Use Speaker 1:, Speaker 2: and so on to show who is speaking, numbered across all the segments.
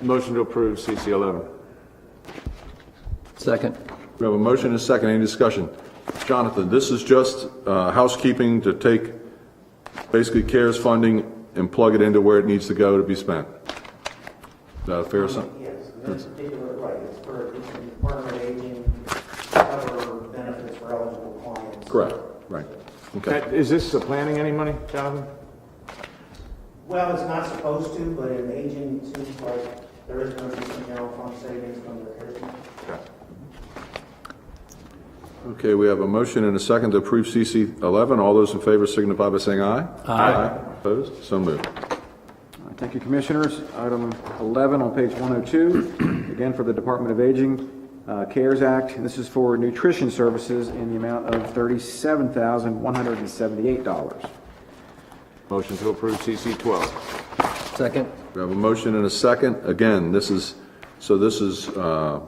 Speaker 1: Motion to approve CC 11.
Speaker 2: Second.
Speaker 3: We have a motion and a second, any discussion? Jonathan, this is just uh, housekeeping to take basically CARES funding and plug it into where it needs to go to be spent. Is that a fair assumption?
Speaker 4: Yes, in this particular, right, it's for each department of aging, cover benefits for eligible clients.
Speaker 3: Correct, right, okay.
Speaker 1: That- Is this supplanting any money, Jonathan?
Speaker 4: Well, it's not supposed to, but in aging, it seems like there is going to be some general fund savings from the CARES.
Speaker 3: Okay, we have a motion and a second to approve CC 11. All those in favor signify by saying aye. Aye. Opposed? So moved.
Speaker 5: All right, Thank you, Commissioners. Item 11 on page 102, again for the Department of Aging, uh, CARES Act. And This is for nutrition services in the amount of $37,178.
Speaker 1: Motion to approve CC 12.
Speaker 2: Second.
Speaker 3: We have a motion and a second. Again, this is, so this is uh,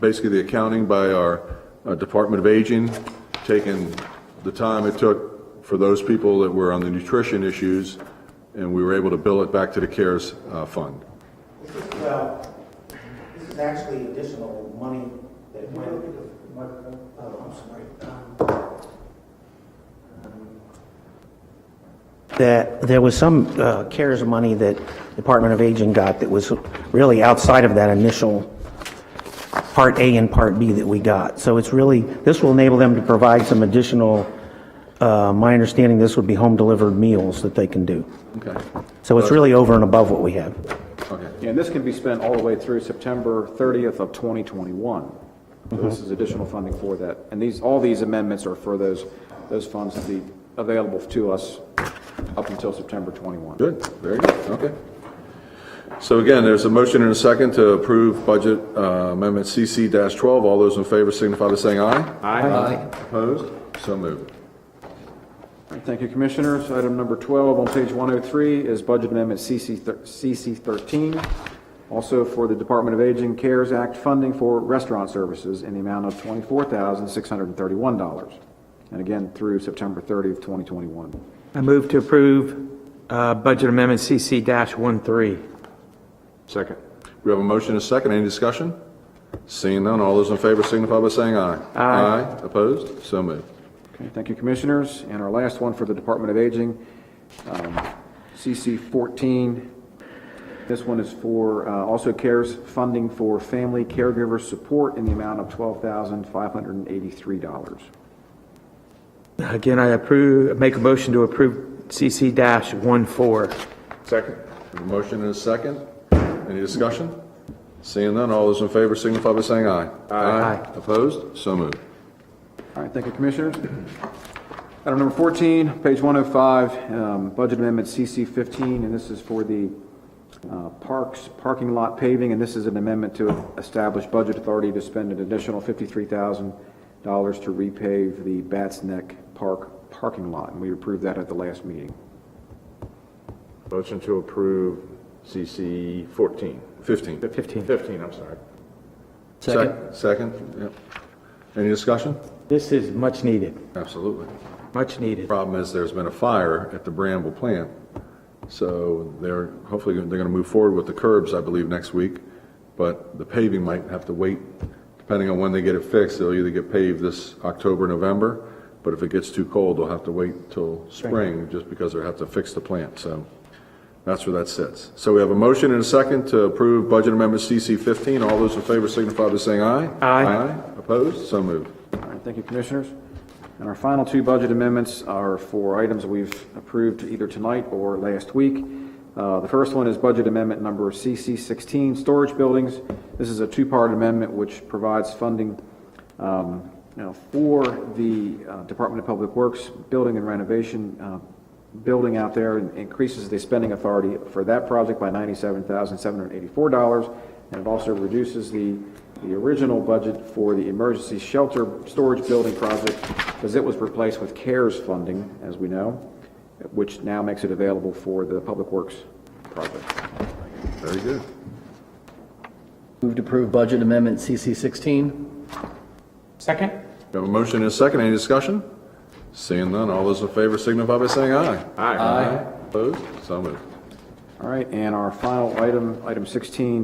Speaker 3: basically the accounting by our uh, Department of Aging, taking the time it took for those people that were on the nutrition issues, and we were able to bill it back to the CARES uh, fund.
Speaker 4: This is, well, this is actually additional money that went, what, oh, I'm sorry. um, um, That, there was some uh, CARES money that Department of Aging got that was really outside of that initial Part A and Part B that we got. So it's really, this will enable them to provide some additional, uh, my understanding, this would be home-delivered meals that they can do.
Speaker 3: Okay,
Speaker 4: So it's really over and above what we have.
Speaker 3: okay.
Speaker 5: And this can be spent all the way through September 30th of 2021. So This is additional funding for that. And these, all these amendments are for those, those funds to be available to us up until September 21.
Speaker 3: Good, very good, okay. So again, there's a motion and a second to approve Budget uh, Amendment CC-12. All those in favor signify by saying aye.
Speaker 1: Aye.
Speaker 3: Opposed? So moved.
Speaker 5: All right, Thank you, Commissioners. Item number 12 on page 103 is Budget Amendment CC thir- CC 13, also for the Department of Aging CARES Act funding for restaurant services in the amount of $24,631, and again, through September 30th, 2021.
Speaker 6: I move to approve uh, Budget Amendment CC-13.
Speaker 1: Second.
Speaker 3: We have a motion and a second. Any discussion? Seeing none, all those in favor signify by saying aye. Aye. Opposed? So moved.
Speaker 5: Okay, thank you, Commissioners. And our last one for the Department of Aging, um, CC 14. This one is for, uh, also CARES funding for family caregiver support in the amount of $12,583.
Speaker 6: Again, I approve, make a motion to approve CC-14.
Speaker 1: Second.
Speaker 3: We have a motion and a second. Any discussion? Seeing none, all those in favor signify by saying aye. Aye. Opposed? So moved.
Speaker 5: All right, thank you, Commissioners. Item number 14, page 105, um, Budget Amendment CC 15, and this is for the uh, Parks Parking Lot Paving, and this is an amendment to establish budget authority to spend an additional $53,000 to repave the Bats Neck Park parking lot, and we approved that at the last meeting.
Speaker 1: Motion to approve CC 14.
Speaker 3: 15.
Speaker 6: 15.
Speaker 1: 15, I'm sorry.
Speaker 2: Second.
Speaker 3: Sec- Second, yep. Any discussion?
Speaker 6: This is much needed,
Speaker 3: Absolutely.
Speaker 6: much needed.
Speaker 3: Problem is, there's been a fire at the Bramble plant, so they're, hopefully, they're going to move forward with the curbs, I believe, next week, but the paving might have to wait, depending on when they get it fixed, they'll either get paved this October, November, but if it gets too cold, they'll have to wait till spring, just because they'll have to fix the plant, so that's where that sits. So we have a motion and a second to approve Budget Amendment CC 15, all those in favor signify by saying aye.
Speaker 6: Aye.
Speaker 3: Aye, opposed, so moved.
Speaker 5: All right, thank you, Commissioners. And our final two budget amendments are for items we've approved either tonight or last week. Uh, The first one is Budget Amendment Number CC16, Storage Buildings. This is a two-part amendment which provides funding um, you know, for the uh, Department of Public Works Building and Renovation uh, Building out there, and increases the spending authority for that project by $97,784, and it also reduces the the original budget for the emergency shelter storage building project, because it was replaced with CARES funding, as we know, which now makes it available for the Public Works project.
Speaker 3: Very good.
Speaker 2: Move to approve budget amendment CC 16.
Speaker 6: Second?
Speaker 3: We have a motion and a second. Any discussion? Seeing none, all those in favor signify by saying aye.
Speaker 1: Aye.
Speaker 3: Opposed? So moved.
Speaker 5: All right, and our final item, item 16,